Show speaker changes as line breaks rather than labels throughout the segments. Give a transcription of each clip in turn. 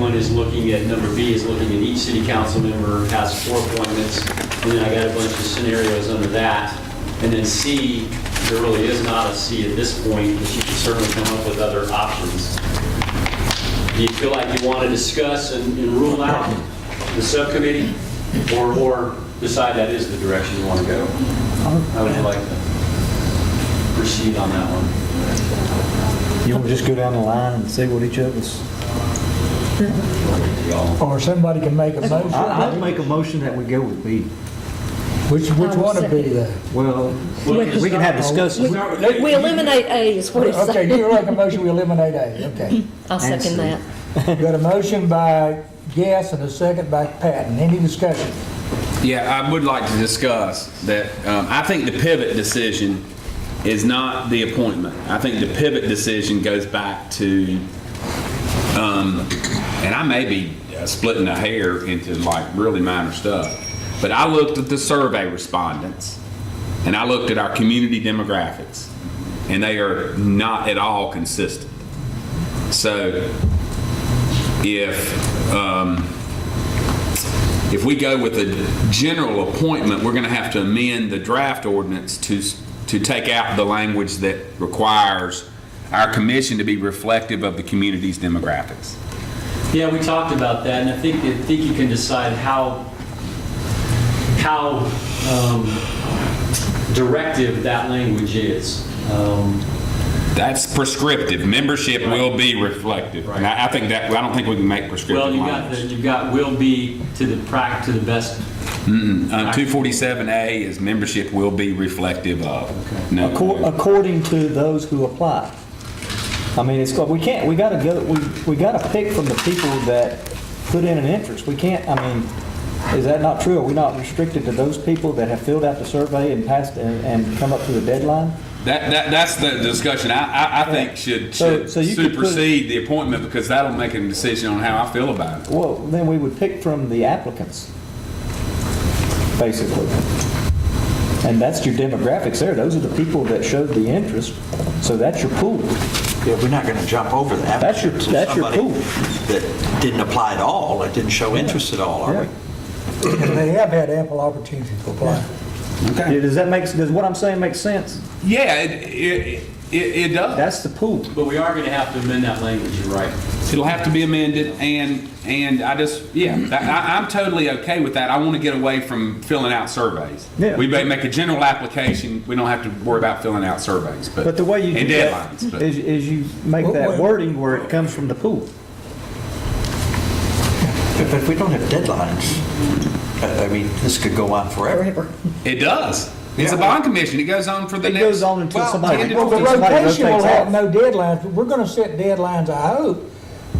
one is looking at, number B is looking at each city council member has four appointments, and then I got a bunch of scenarios under that. And then C, there really is not a C at this point, but you can certainly come up with other options. Do you feel like you want to discuss and and rule out the subcommittee, or, or decide that is the direction you want to go? I would like to proceed on that one.
You want to just go down the line and see what each of us?
Y'all.
Or somebody can make a
I- I'd
motion.
make a motion that we go with B.
Which, which
I will
one would be
second.
that?
Well,
Well,
we can have discussions.
We we eliminate A is what it's
Okay,
saying.
you make a motion, we eliminate A, okay.
I'll second that.
Got a motion by Guess and a second by Patton. Any discussion?
Yeah, I would like to discuss that. Um, I think the pivot decision is not the appointment. I think the pivot decision goes back to, um, and I may be uh, splitting the hair into like really minor stuff, but I looked at the survey respondents and I looked at our community demographics, and they are not at all consistent. So if, um, if we go with a general appointment, we're going to have to amend the draft ordinance to, to take out the language that requires our commission to be reflective of the community's demographics.
Yeah, we talked about that, and I think, I think you can decide how, how um, directive that language is. Um,
That's prescriptive. Membership will be reflective. And I I think that, I don't think we can make
Well,
prescriptive
you've got, the-
language.
you've got will be to the prac, to the best.
Uh, 247A is membership will be reflective of. No.
Accor- According to those who apply. I mean, it's, we can't, we gotta go, we, we gotta pick from the people that put in an interest. We can't, I mean, is that not true? Are we not restricted to those people that have filled out the survey and passed and, and come up to the deadline?
That, that, that's the discussion I, I, I think should,
So-
should
so you could put-
supersede the appointment because that'll make a decision on how I feel about it.
Well, then we would pick from the applicants, basically. And that's your demographics there. Those are the people that showed the interest. So that's your pool.
Yeah, we're not going to jump over the
That's your-
applicants. of
that's your
somebody
pool.
That didn't apply at all, that didn't show interest at all, are we?
Yeah.
They have had ample opportunity to apply.
Yeah, Does that make, does what I'm saying make sense?
Yeah, it, it, it, it does.
That's the pool.
But we are going to have to amend that language, you're right.
It'll have to be amended and, and I just, yeah, that- I, I'm totally okay with that. I want to get away from filling out surveys.
Yeah.
We may make a general application, we don't have to worry about filling out surveys, but.
But the way you do
And
that
deadlines, but.
is, is you make that wording where it comes from the pool.
But but we don't have deadlines. I I mean, this could go on forever.
Forever.
It does. It's a bond commission. It goes on for the
It
next.
goes on until
well,
somebody-
10 to
Well, the
12.
somebody
rotation will
rotates
have
off.
no deadlines, but we're going to set deadlines, I hope,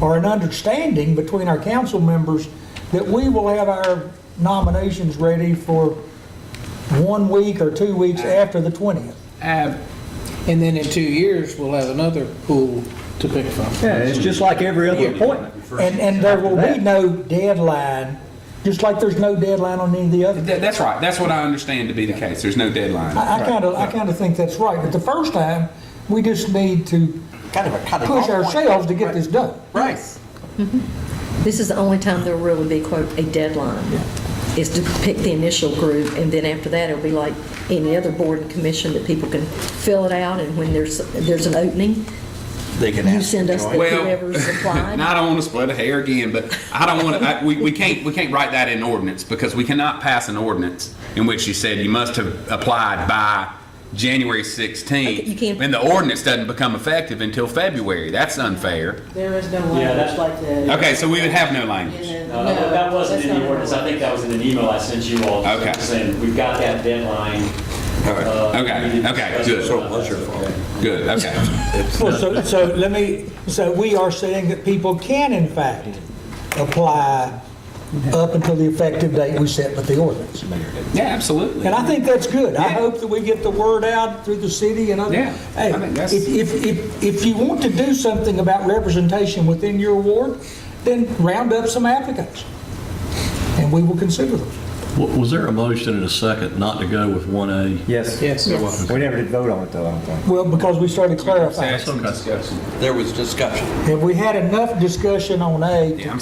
or an understanding between our council members that we will have our nominations ready for one week or two weeks after the 20th.
Ab-
And then in two years, we'll have another pool to pick from.
Yeah, it's just like every other appointment.
And, and there will be no deadline, just like there's no deadline on any of the other.
That- That's right. That's what I understand to be the case. There's no deadline.
I kind of, I kind of think that's right, but the first time, we just need to
Kind of a cutting off
push
point.
ourselves to get this done.
Right.
This is the only time there'll really be, quote, a deadline, is to pick the initial group, and then after that, it'll be like any other board and commission that people can fill it out, and when there's, there's an opening,
They can
you
ask.
send us the
Well,
whoever's applied.
Now, I don't want to split a hair again, but I don't want to, we, we can't, we can't write that in ordinance because we cannot pass an ordinance in which you said you must have applied by January
Okay, you
16th.
can't-
And the ordinance doesn't become effective until February. That's unfair.
There is no
Yeah, that's-
language like that.
Okay, so we would have no language.
And,
No,
uh,
that- that wasn't
that's
in the
not-
ordinance, I think that was in an email I sent you all.
Okay.
Saying, we've got that deadline. Uh,
Okay,
we need to
okay,
discuss
good.
it.
So it was your fault.
Good, okay.
Well, so, so let me, so we are saying that people can in fact apply up until the effective date we set with the ordinance.
Yeah, absolutely.
And I think that's good. I
Yeah.
hope that we get the word out through the city and other.
Yeah, I
Hey,
think that's-
if, if, if, if you want to do something about representation within your ward, then round up some applicants and we will consider them.
W- Was there a motion and a second not to go with 1A?
Yes.
Yes.
We never did vote on it though, I don't think.
Well, because we started clarifying.
Okay.
There was discussion.
Have we had enough discussion on A to
Yeah, I'm